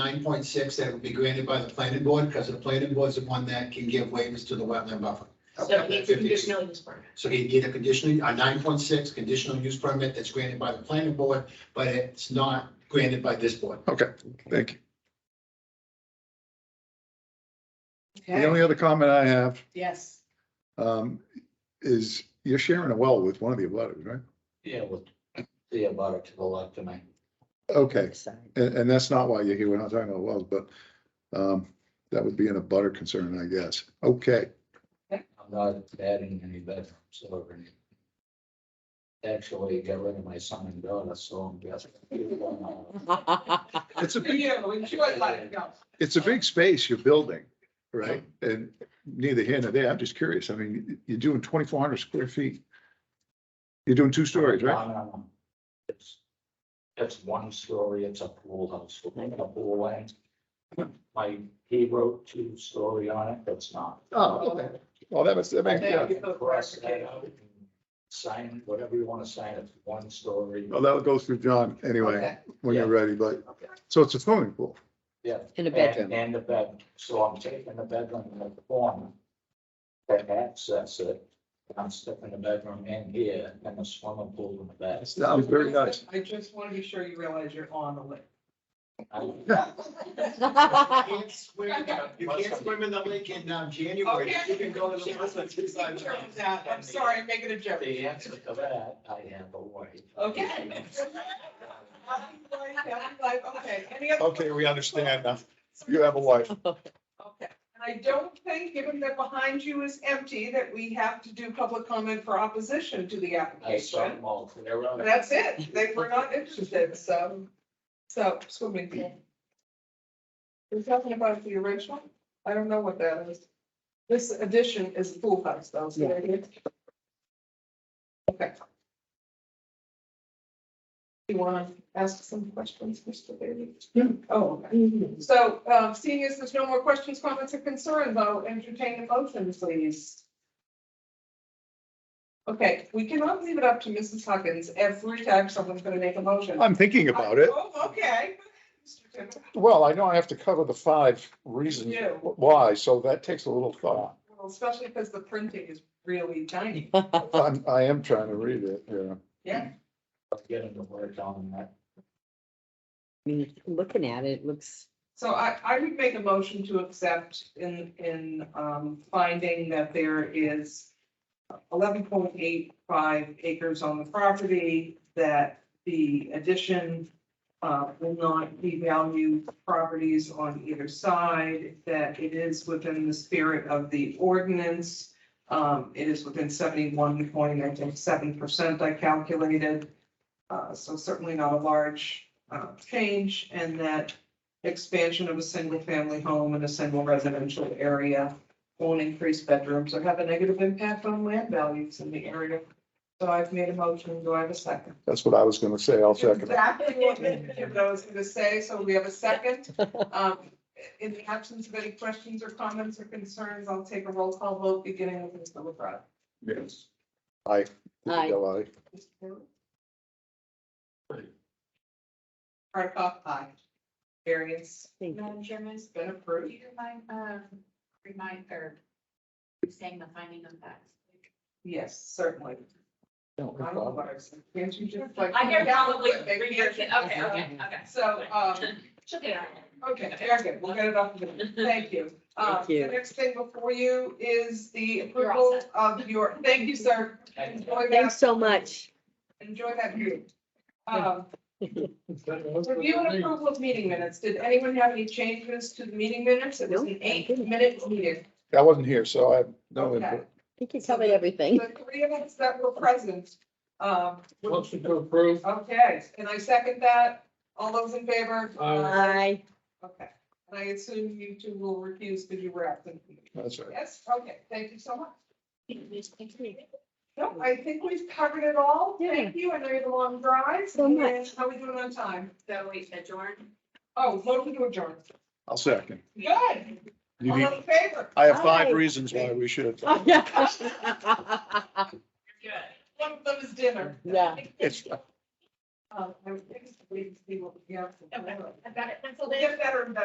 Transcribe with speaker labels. Speaker 1: nine point six that would be granted by the planning board, because the planning board is the one that can give waivers to the wetland buffer. up-
Speaker 2: So
Speaker 1: up to
Speaker 2: it's
Speaker 1: 50 feet.
Speaker 2: conditional use permit.
Speaker 1: So he'd get a conditional, a nine point six conditional use permit that's granted by the planning board, but it's not granted by this board.
Speaker 3: Thank you. The
Speaker 4: Okay,
Speaker 3: only other comment I have,
Speaker 4: yes.
Speaker 3: um, is you're sharing a well with one of the abutters, right?
Speaker 5: Yeah, we'll see about it to the left tonight.
Speaker 3: Okay, and, and that's not why you're here. We're not talking about wells, but, um, that would be an abutter concern, I guess. Okay,
Speaker 5: I'm not adding any bedrooms or anything. Actually, I got rid of my son and daughter, so I'm just.
Speaker 3: it's a, big-
Speaker 5: Yeah, we should let it go.
Speaker 3: it's a big space you're building, right? And neither here nor there. I'm just curious. I mean, you're doing twenty-four hundred square feet. You're doing two stories, right?
Speaker 5: No, no, no. It's, it's one story, it's a pool house, we're making a pool land. My, he wrote two story on it, it's not.
Speaker 3: Oh, okay. Well, that was, that makes, yeah.
Speaker 5: Cross that out and Sign whatever you want to sign, it's one story.
Speaker 3: Well, that'll go through John anyway,
Speaker 4: Okay.
Speaker 3: when you're ready, but, so it's a swimming pool.
Speaker 5: Yeah.
Speaker 6: In a bedroom.
Speaker 5: And, and the bed, so I'm taking the bedroom in the corner. To access it, I'm sticking the bedroom in here and the swimming pool in the back.
Speaker 3: It's, that was very nice.
Speaker 7: I just want to be sure you realize you're on the list.
Speaker 5: I-
Speaker 1: You can't swim- You can't swim in the lake in um, January.
Speaker 7: Okay.
Speaker 1: You can go to the. lake in December.
Speaker 7: I'm sorry, I'm making a joke.
Speaker 5: The answer to that, I have a wife.
Speaker 7: Okay. Okay, any other?
Speaker 3: we understand now.
Speaker 7: Okay, and I don't think, given that behind you is empty, that we have to do public comment for opposition to the
Speaker 5: I saw
Speaker 7: application.
Speaker 5: them all clear
Speaker 7: But
Speaker 5: out.
Speaker 7: That's it, they were not interested, so, so swimming pool. We're talking about the original, I don't know what that is. This addition is a pool house, though, so there it is. Okay. You want to ask some questions, Mr. Bailey? Oh, okay.
Speaker 3: Mm-hmm.
Speaker 7: So, um, seeing as there's no more questions, comments, or concerns, I'll entertain a motion, please. Okay, we cannot leave it up to Mrs. Huckins every time someone's gonna make a motion.
Speaker 3: I'm thinking about it.
Speaker 7: Oh, okay. Mr. Timm,
Speaker 3: Well, I know I have to cover the five reasons
Speaker 7: Yeah.
Speaker 3: why, so that takes a little thought.
Speaker 7: well, Especially because the printing is really tiny.
Speaker 3: I'm, I am trying to read it, yeah.
Speaker 5: Getting to work on that.
Speaker 6: Looking at it, it looks.
Speaker 7: So I, I would make a motion to accept in, in, um, finding that there is eleven point eight five acres on the property, that the addition uh, will not devalue properties on either side, that it is within the spirit of the ordinance. Um, it is within seventy-one point, I think, seven percent I calculated. Uh, so certainly not a large, uh, change, and that expansion of a single-family home in a single residential area won't increase bedrooms or have a negative impact on land values in the area. So I've made a motion. Do I have a second?
Speaker 3: That's what I was gonna say. I'll second it.
Speaker 7: Exactly what I was gonna say. So we have a second. Um, in the absence of any questions or comments or concerns, I'll take a roll call vote beginning with Mr. LaBrada.
Speaker 3: Yes. I. I.
Speaker 6: Aye.
Speaker 7: Mr. Taylor? Hardcoff, aye. Variance.
Speaker 6: Thank you.
Speaker 8: Madam Chairman,
Speaker 7: It's been
Speaker 8: do
Speaker 7: approved.
Speaker 8: you mind, um, remind, or saying the finding of that?
Speaker 7: Yes, certainly. I don't know what I said. Can't you just like?
Speaker 8: I can probably
Speaker 7: Yeah, maybe
Speaker 8: rehear it, okay, okay, okay.
Speaker 7: So, um,
Speaker 8: She'll get it on.
Speaker 7: okay, very good. We'll get it off. the minute. Thank you. Um,
Speaker 6: Thank you.
Speaker 7: The next thing before you is the
Speaker 8: You're all
Speaker 7: approval of your, thank you, sir. Enjoy
Speaker 6: Thanks
Speaker 7: that,
Speaker 6: so much.
Speaker 7: enjoy that view. Um, Review and approval of meeting minutes. Did anyone have any changes to the meeting minutes? It was
Speaker 6: No,
Speaker 7: an
Speaker 6: I
Speaker 7: eight
Speaker 6: didn't.
Speaker 7: minute meeting.
Speaker 3: I wasn't here, so I have no
Speaker 7: Okay.
Speaker 3: input.
Speaker 6: I think you covered everything.
Speaker 7: The three of us that were present, um,
Speaker 5: Motion to approve.
Speaker 7: Okay, and I second that. All those in favor?
Speaker 6: Aye.
Speaker 7: Okay, and I assume you two will refuse because you were absent.
Speaker 3: That's right.
Speaker 7: Yes, okay, thank you so much. No, I think we've covered it all. Thank you. I know you had a long drive.
Speaker 6: So much.
Speaker 7: And How are we doing on time?
Speaker 8: So we adjourn.
Speaker 7: Oh, motion to adjourn.
Speaker 3: I'll second.
Speaker 7: Good.
Speaker 3: You
Speaker 7: All
Speaker 3: need,
Speaker 7: in favor?
Speaker 3: I have five
Speaker 6: Aye.
Speaker 3: reasons why we should.
Speaker 6: Oh,
Speaker 8: Good.
Speaker 7: One of them is dinner.
Speaker 6: Yeah.
Speaker 3: It's,
Speaker 7: Um, I was thinking, we, we, yeah.
Speaker 8: Okay, I've got it penciled in.
Speaker 7: Get better and better.